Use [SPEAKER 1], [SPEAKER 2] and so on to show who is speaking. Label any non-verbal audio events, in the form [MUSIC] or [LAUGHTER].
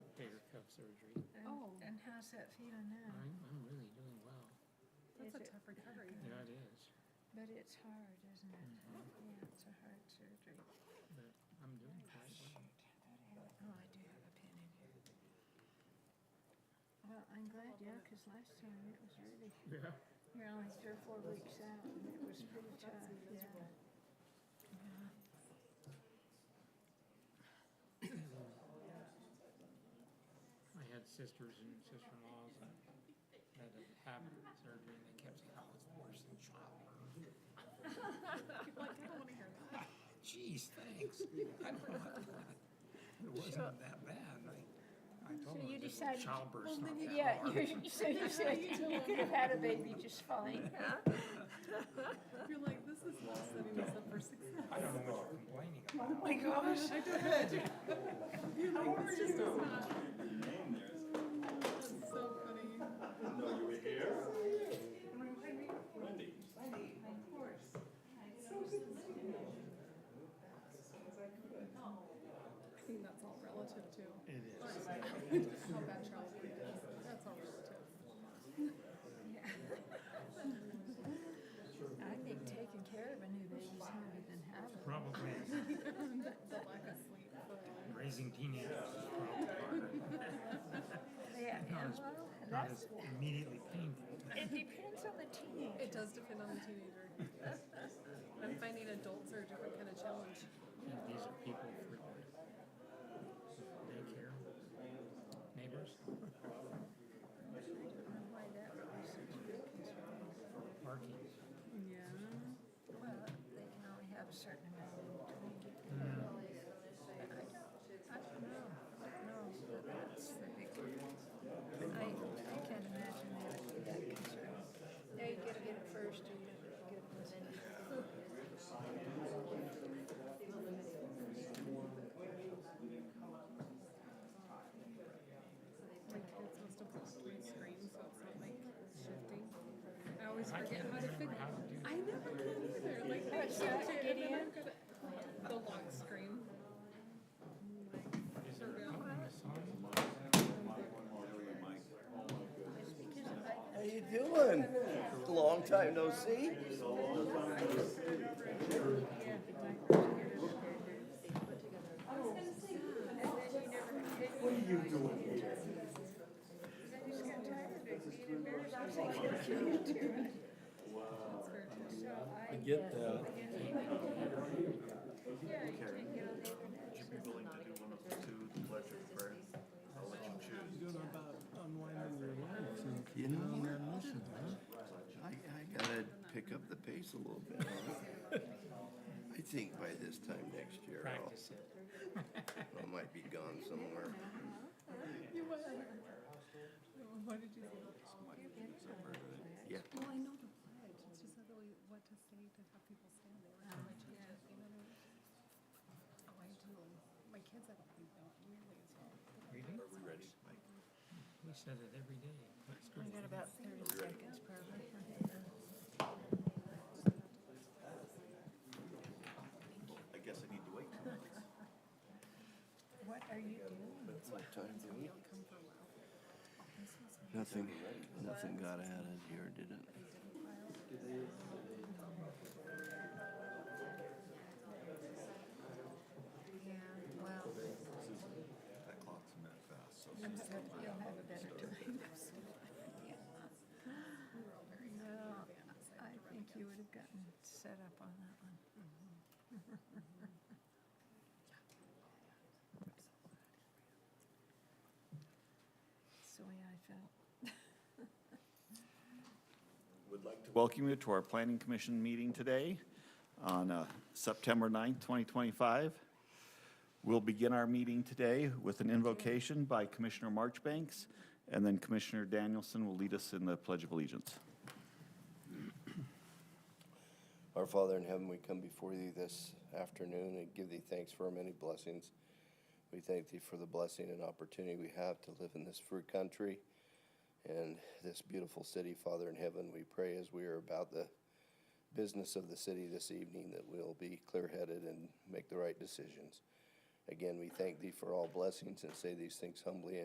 [SPEAKER 1] surgery.
[SPEAKER 2] And,
[SPEAKER 3] Oh.
[SPEAKER 2] and how's that feeling now?
[SPEAKER 1] I'm, I'm really doing well.
[SPEAKER 2] Is
[SPEAKER 3] That's a
[SPEAKER 2] it-
[SPEAKER 3] tough recovery. [LAUGHS]
[SPEAKER 1] Yeah, it is.
[SPEAKER 2] But it's hard, isn't it?
[SPEAKER 1] Mhm.
[SPEAKER 2] Yeah, it's a hard surgery.
[SPEAKER 1] But I'm doing
[SPEAKER 2] Oh,
[SPEAKER 1] quite
[SPEAKER 2] shoot.
[SPEAKER 1] well.
[SPEAKER 2] I thought I had it. Oh, I do have a pen in here. Well, I'm glad, yeah, because last time it was really,
[SPEAKER 1] Yeah.
[SPEAKER 2] you're only three or four weeks out, and it was pretty tough, yeah.
[SPEAKER 1] I had sisters and sister-in-laws that had to have surgery, and they kept saying, "Oh, it's worse than childbirth."
[SPEAKER 3] Like, I don't want to hear that.
[SPEAKER 1] Geez, thanks. I don't know. It wasn't that bad. I, I told
[SPEAKER 2] So
[SPEAKER 1] them
[SPEAKER 2] you
[SPEAKER 1] I said, "Well,
[SPEAKER 2] decided-
[SPEAKER 1] childbirth's not that
[SPEAKER 2] Yeah,
[SPEAKER 1] hard."
[SPEAKER 2] you, so you said
[SPEAKER 1] [LAUGHS]
[SPEAKER 2] you could have had a baby just fine, huh?
[SPEAKER 3] You're like, this is not setting us up for success.
[SPEAKER 1] I don't know what you're complaining about.
[SPEAKER 2] Oh my gosh. [LAUGHS]
[SPEAKER 3] How are you?
[SPEAKER 4] Your name there is.
[SPEAKER 3] That's so funny.
[SPEAKER 4] No, you were here? Wendy.
[SPEAKER 3] I think that's all relative too.
[SPEAKER 1] It is.
[SPEAKER 3] How bad Charles is. That's all relative. [LAUGHS]
[SPEAKER 2] I think taking care of a new baby is harder than having. one.
[SPEAKER 1] Probably
[SPEAKER 3] The lack of sleep. the-
[SPEAKER 1] raising teenagers is probably harder.
[SPEAKER 2] Yeah,
[SPEAKER 1] Not as,
[SPEAKER 2] yeah, well,
[SPEAKER 1] not
[SPEAKER 2] that's,
[SPEAKER 1] as immediately painful.
[SPEAKER 2] [LAUGHS] it depends on the teenager.
[SPEAKER 3] It does depend on the teenager. I'm finding adults are a different kind of challenge.
[SPEAKER 1] And these are people frequently. Daycare, neighbors,
[SPEAKER 2] I don't know why that would be such a big concern.
[SPEAKER 1] parking.
[SPEAKER 3] Yeah.
[SPEAKER 2] Well, they can only have a certain amount of time to get their ability. But I don't, I don't know, I don't know, but that's the big one. I, I can't imagine they would be that concerned. They gotta get it first, or you gotta get it with
[SPEAKER 3] My kids must have blocked my screen, so it's not like shifting. I always forget how to
[SPEAKER 1] remember how to do
[SPEAKER 3] figure. I never can either. Like I
[SPEAKER 2] What's that?
[SPEAKER 3] shift it
[SPEAKER 2] Get
[SPEAKER 3] and then
[SPEAKER 2] in?
[SPEAKER 3] I've got to- the lock screen.
[SPEAKER 1] Is there out in the sun?
[SPEAKER 5] How you doing? Long time no see.
[SPEAKER 2] What are you doing here? I just got tired of it being embarrassed. I was like, "You're cute, too." So I.
[SPEAKER 5] Get that.
[SPEAKER 2] Yeah, you can get on the internet.
[SPEAKER 4] Would you be willing to do one of the two electric prayers? I'll let you choose.
[SPEAKER 5] You know, we're missing, huh? I, I gotta pick up the pace a little bit. huh? I think by this time next year, I'll,
[SPEAKER 1] Practice it.
[SPEAKER 5] I might be gone somewhere.
[SPEAKER 3] You went. What did you say?
[SPEAKER 5] Yeah.
[SPEAKER 3] Well, I know the pledge. It's just not really what to say to have people stand there. How much it is, you know what I mean? Oh, I do. My kids, I don't think don't nearly as well.
[SPEAKER 1] Really?
[SPEAKER 5] Are we ready?
[SPEAKER 1] We said it every day. Let's go.
[SPEAKER 2] Got about thirty seconds probably.
[SPEAKER 4] I guess I need to wait.
[SPEAKER 2] What are you doing?
[SPEAKER 5] What time do we?
[SPEAKER 3] Don't come for a while. This was my
[SPEAKER 5] Nothing, nothing got added here, did it?
[SPEAKER 3] file.
[SPEAKER 2] Yeah, well,
[SPEAKER 4] That clock's a minute fast, so.
[SPEAKER 2] you'll have a better time. No, I think you would have gotten set up on that one. [LAUGHS] That's the way I felt.
[SPEAKER 4] Would like to welcome you to our planning commission meeting today on uh, September 9th, 2025. We'll begin our meeting today with an invocation by Commissioner Marchbanks, and then Commissioner Danielson will lead us in the Pledge of Allegiance.
[SPEAKER 5] Our Father in heaven, we come before thee this afternoon and give thee thanks for our many blessings. We thank thee for the blessing and opportunity we have to live in this free country and this beautiful city. Father in heaven, we pray as we are about the business of the city this evening that we'll be clear headed and make the right decisions. Again, we thank thee for all blessings and say these things humbly